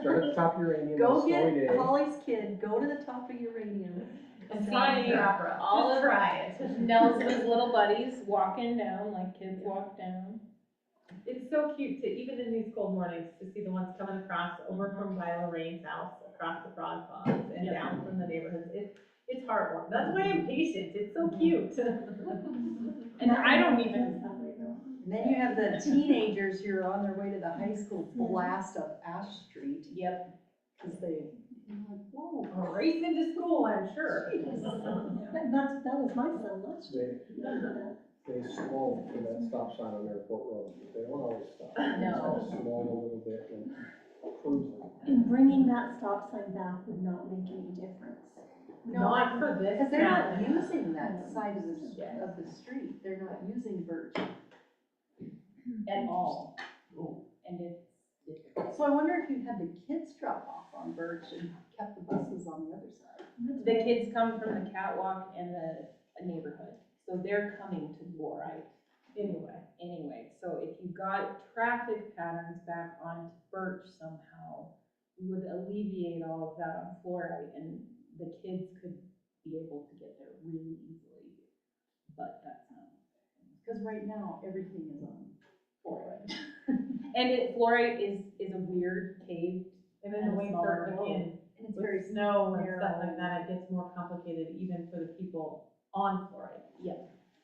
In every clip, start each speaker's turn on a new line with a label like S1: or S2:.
S1: Start at the top of uranium,
S2: Go
S1: it's
S2: get
S1: going
S2: Holly's kid, go to the top of uranium.
S3: It's
S2: Sing
S3: funny,
S2: the opera.
S3: all
S2: Just
S3: of
S2: try it.
S3: Nelson's little buddies walking down, like kids walk down.
S4: It's so cute to, even in these cold mornings, to see the ones coming across over from by Lorraine's house, across the frog ponds and
S3: Yeah.
S4: down from the neighborhoods. It, it's heartwarming. That's why I'm patient. It's so cute.
S3: And I don't even,
S2: And Then you have the teenagers who are on their way to the high school blast up Ash Street,
S3: yep,
S2: because they, I'm like, whoa.
S4: Race into school, I'm sure.
S5: That- That's, that was my son last
S1: in.
S5: year.
S1: They, they slow for that stop sign on Airport Road, they don't always stop.
S3: No.
S1: Just Slow a little bit and cruise.
S5: And bringing that stop sign back would not make any difference.
S4: Not for this.
S2: Because they're not
S4: town.
S2: using that side of the, of the street, they're not using Birch.
S3: at all. And it's,
S2: So I wonder if you had the kids drop off on Birch and kept the buses on the other side.
S3: the kids come from the catwalk and the neighborhood, so they're coming to Warite
S4: Anyway,
S3: anyway. So if you got traffic patterns back on Birch somehow, you would alleviate all of that on Florite and the kids could be able to get there really easily. But that's not
S2: Because right now, everything is on.
S3: Florite. And it, Florite is, is a weird cave.
S4: and then the
S3: And
S4: winter
S3: smaller
S4: again,
S2: And it's very
S4: with snow and stuff
S2: narrow.
S4: like that, it gets more complicated even for the people on Florida.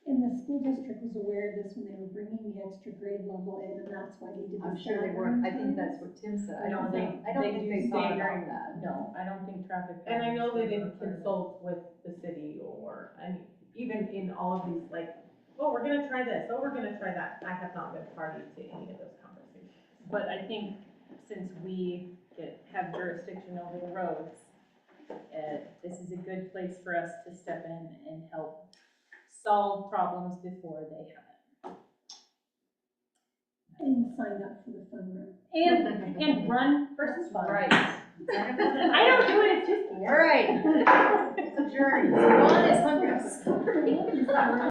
S5: And the school district was aware of this when they were bringing the extra grade level in, and that's why they did the.
S2: I'm sure they were, I think that's what Tim said, I don't think, I don't
S3: They
S2: think
S3: do
S2: they thought
S3: staggering-
S2: about that.
S3: No, I don't think traffic.
S4: And I know they
S3: patterns
S4: didn't
S3: were part of it.
S4: consult with the city or, I mean, even in all of these, like, oh, we're gonna try this, oh, we're gonna try that. I have not been party to any of those conversations.
S3: But I think since we get, have jurisdiction over the roads, uh, this is a good place for us to step in and help solve problems before they happen.
S5: And signed up for the fun run.
S3: And, and run versus fun.
S2: Right.
S3: I don't do it, it's just.
S2: All right. It's a journey. Go on, it's hundreds.